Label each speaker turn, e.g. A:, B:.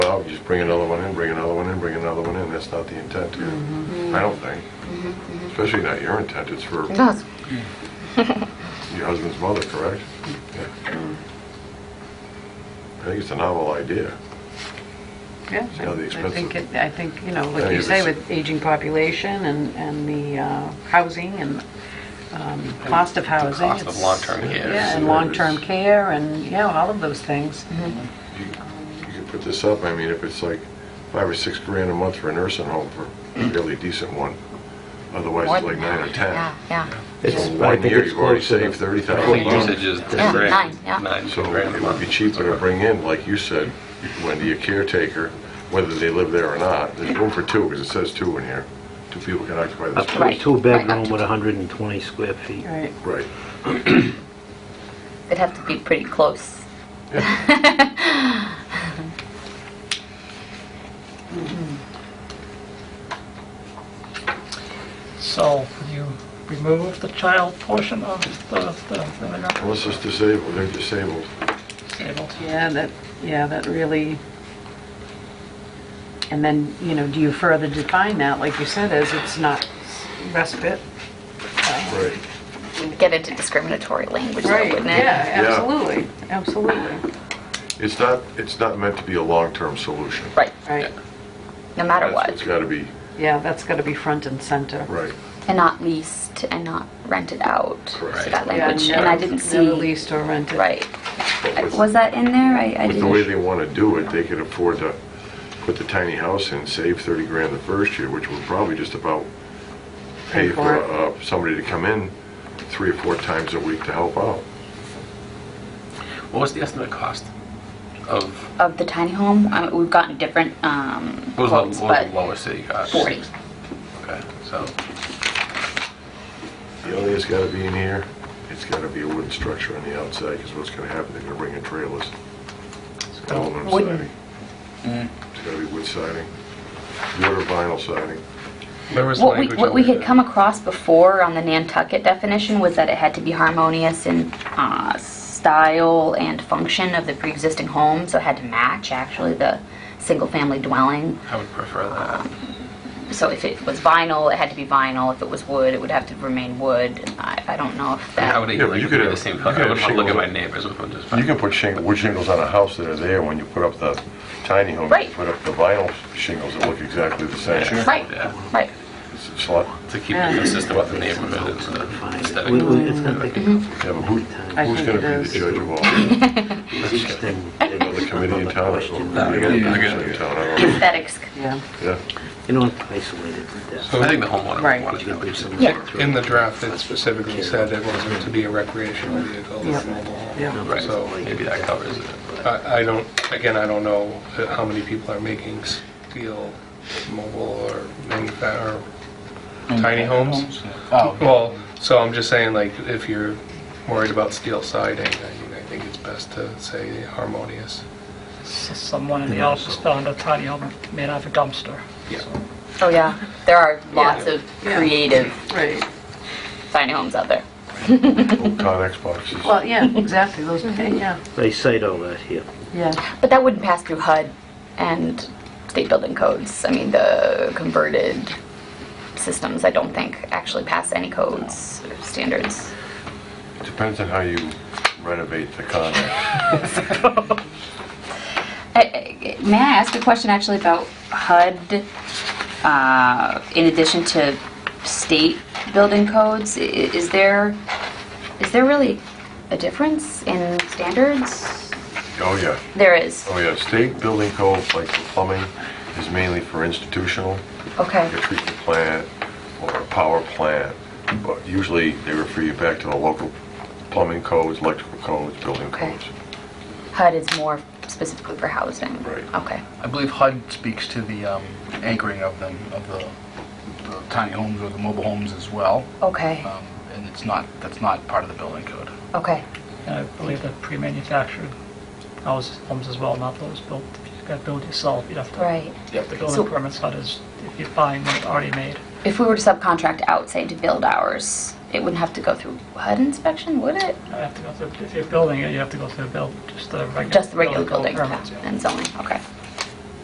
A: just bring another one in, bring another one in, bring another one in. That's not the intent here, I don't think. Especially not your intent, it's for
B: Yes.
A: your husband's mother, correct? Yeah. I think it's a novel idea.
C: Yeah,
A: It's gotta be
C: I I think,
A: expensive.
C: it- I think, you know,
A: Yeah,
C: like you
A: if
C: say,
A: it's-
C: with aging population and, and the uh, housing and um, cost of housing.
D: cost of
C: it's-
D: long-term care.
C: Yeah, and long-term care and, yeah, all of those things.
A: Mm-hmm. You you could put this up, I mean, if it's like five or six grand a month for a nursing home for a really decent one, otherwise
B: More
A: it's like
B: than
A: nine or 10.
B: Yeah, yeah.
A: So
E: It's, I
A: one
E: think
A: year,
E: it's
A: you've already
E: close to
A: saved
E: the,
A: $30,000.
D: Well, Usage is 10
B: Yeah,
D: grand.
B: nine, yeah.
A: So
D: grand a
A: it would
D: month.
A: be cheaper to bring in, like you said, Wendy, a caretaker, whether they live there or not. There's room for two, because it says two in here. Two people can occupy
E: up
A: this
E: to a
B: Right. Right, up
E: two-bedroom
B: to
E: with
B: two.
E: 120 square feet.
C: Right.
A: Right.
B: It'd have to be pretty close.
F: So you remove the child portion of the, the, the
A: Unless it's disabled, they're disabled.
F: disabled.
C: Yeah, that, yeah, that really, and then, you know, do you further define that, like you said, as it's not respite?
A: Right.
B: You'd get into discriminatory language though,
C: Right,
B: wouldn't it?
C: yeah,
A: Yeah.
C: absolutely, absolutely,
A: It's not, it's not meant to be a long-term solution.
B: Right,
C: right.
B: no matter
A: That's It's
B: what.
A: got to be,
C: Yeah, that's got to be front and center.
A: right.
B: And not leased and not rented out.
A: Correct.
B: So that
C: Yeah,
B: language, and I didn't
C: Never never
B: see,
C: leased or rented.
B: right.
A: But
B: I-
A: with-
B: Was that in there? I, I
A: But the way they
B: didn't.
A: want to do it, they could afford to put the tiny house in, save 30 grand the first year, which would probably just about pay
C: Pay
A: for
C: for it.
A: uh, somebody to come in three or four times a week to help out.
D: What was the estimate cost of,
B: Of the tiny home, I mean, we've gotten different, um,
D: what
B: quotes,
D: was the- what was the
B: but
D: lowest that you got?
B: forty.
D: Okay, so,
A: The only that's got to be in here, it's got to be a wooden structure on the outside, because what's going to happen, they're going to bring in trailers. It's got aluminum
B: Wooden.
A: siding. It's got to be wood siding, wood or vinyl siding.
D: there was
B: What we,
D: language.
B: what we
D: over
B: had
D: there.
B: come across before on the Nantucket definition was that it had to be harmonious in uh, style and function of the pre-existing home, so it had to match actually the single-family dwelling.
D: I would prefer
B: Uh,
D: that.
B: So if it was vinyl, it had to be vinyl. If it was wood, it would have to remain wood. And I, I don't know if that.
D: I would
A: Yeah, but
D: like
A: you
D: to
A: could
D: be the
A: have-
D: same
A: you
D: color.
A: could
D: I
A: have
D: wouldn't want to look at my
A: shingles.
D: neighbors with one just
A: You
D: fine.
A: can put shingles, wood shingles on a house that are there when you put up the tiny home.
B: Right.
A: You Put up the vinyl shingles that look exactly the same.
B: Right,
D: Yeah.
B: right.
A: It's a slot.
D: To keep it consistent with the neighborhood and
A: uh,
D: the aesthetic.
E: We- we- It's gonna take a
A: Yeah, but who,
C: I
A: who's going
C: think it
A: to be
C: is.
A: the judge of all? this?
E: existing.
A: Another committee in town or something?
E: No, I get
D: it, I
A: Yeah,
D: get it.
A: in town, I don't know.
B: Aesthetics.
C: Yeah.
A: Yeah.
E: You don't have to isolate it to death.
D: I think the homeowner
C: Right.
D: would want to
E: You
D: know
E: can
D: what
E: do
D: you're
E: some
D: saying.
B: Yeah.
E: work.
G: In the draft, it specifically said it wasn't to be a recreational vehicle.
C: Yep. Yeah.
D: Right,
G: So-
D: maybe that covers it.
G: I I don't, again, I don't know how many people are making steel mobile or manufa- or tiny homes.
H: Oh,
G: Well, so I'm just saying, like, if you're worried about steel siding, I mean, I think it's best to say harmonious.
F: So Someone in the office found a tiny home made out of a dumpster.
G: Yeah.
B: Oh yeah, there are lots of creative
C: Right.
B: tiny homes out there.
A: Old Conex boxes.
C: Well, yeah, exactly, those, yeah,
E: They cite all that here.
C: yeah.
B: But that wouldn't pass through HUD and state building codes. I mean, the converted systems, I don't think, actually pass any codes or standards.
A: It Depends on how you renovate the Conex.
B: Uh, uh, May I ask a question actually about HUD? uh, In addition to state building codes, I- is there, is there really a difference in standards?
A: Oh, yeah.
B: There is,
A: Oh, yeah. State building code, like for plumbing, is mainly for institutional.
B: okay.
A: a treatment plant or a power plant, but usually they refer you back to the local plumbing codes, electrical codes, building
B: Okay.
A: codes.
B: HUD is more specifically for housing?
A: Right.
B: Okay.
H: I believe HUD speaks to the um, anchoring of them, of the the tiny homes or the mobile homes as well,
B: Okay,
H: Um, and it's not, that's not part of the building code.
B: okay.
F: And I believe that pre-manufactured houses, homes as well, not those built, if you gotta build yourself, you'd have to.
B: Right.
F: The
B: So-
F: building permits, that is, if you're buying one already made.
B: If we were to subcontract out, say, to build ours, it wouldn't have to go through HUD inspection, would it?
F: You have to go through, if you're building it, you have to go through a build, just the regular.
B: Just the regular
F: building
B: building
F: permits, yeah.
B: and zoning, okay.